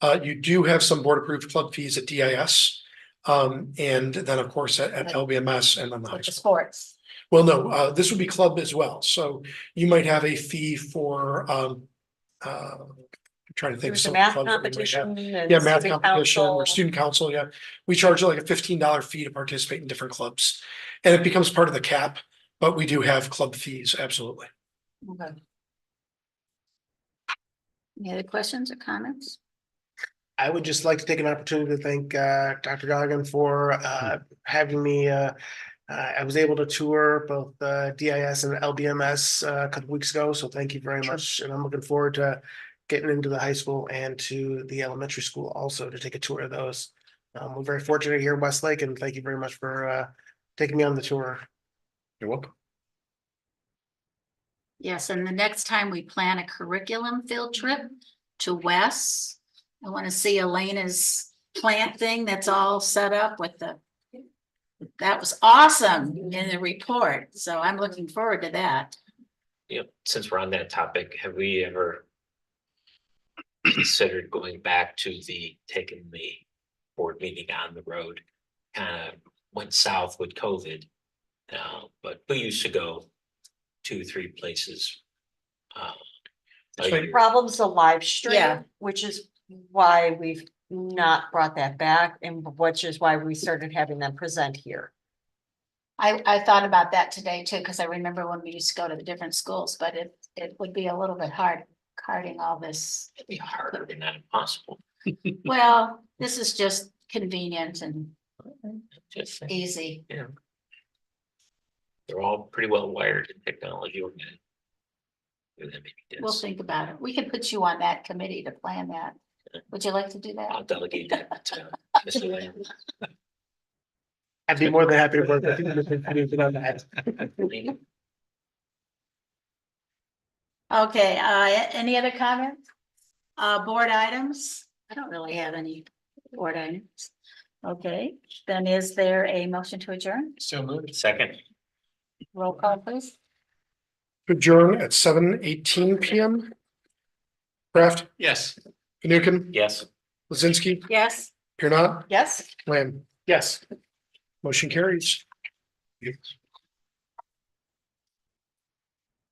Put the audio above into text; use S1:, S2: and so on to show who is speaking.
S1: Uh, you do have some board approved club fees at DIS. Um, and then, of course, at, at LBMS and then the high
S2: with the
S1: school.
S2: sports.
S1: Well, no, uh, this would be club as well. So you might have a fee for, um, uh, I'm trying to think. of
S2: There was a
S1: some
S2: math
S1: clubs that we might have.
S2: competition and.
S1: Yeah, math
S2: student
S1: competition or
S2: council.
S1: student council, yeah. We charge like a fifteen dollar fee to participate in different clubs. And it becomes part of the cap, but we do have club fees, absolutely.
S2: Okay. Any other questions or comments?
S3: I would just like to take an opportunity to thank uh Dr. Goggan for uh
S1: Hmm.
S3: having me uh. Uh, I was able to tour both uh DIS and LBMS uh, a couple weeks ago, so thank you very
S1: Sure.
S3: much. And I'm looking forward to getting into the high school and to the elementary school also to take a tour of those. Um, we're very fortunate here in Westlake and thank you very much for uh taking me on the tour.
S1: You're welcome.
S2: Yes, and the next time we plan a curriculum field trip to Wes. I want to see Elena's plant thing that's all set up with the. That was awesome in the report, so I'm looking forward to that.
S4: you know, since we're on that topic, have we ever considered going back to the, taking the board meeting on the road? Kind of went south with COVID. Uh, but we used to go two, three places. uh, a
S1: That's right.
S4: year.
S5: Problem's the live
S2: Yeah.
S5: stream, which is why we've not brought that back and which is why we started having them present here.
S2: I, I thought about that today too, because I remember when we used to go to the different schools, but it, it would be a little bit hard carting all this.
S4: It'd be harder than that impossible.
S2: Well, this is just convenient and
S4: Just saying,
S2: easy.
S4: you know. They're all pretty well wired in technology. We're gonna do that maybe
S2: We'll
S4: this.
S2: think about it. We could put you on that committee to plan that. Would you like to do that?
S4: I'll delegate that to Mr. Lamb.
S3: I'd be more than happy to work with you. Mr. Knudsen, on that.
S2: Okay, uh, any other comments? Uh, board items? I don't really have any board items. Okay, then is there a motion to adjourn?
S4: So moved. Second.
S2: Roll call please.
S1: Adjourn at seven eighteen PM. Kraft,
S4: Yes.
S1: Fanukin,
S4: Yes.
S1: Lizinski,
S2: Yes.
S1: Pirnat,
S5: Yes?
S1: Lamb.
S3: Yes.
S1: Motion carries.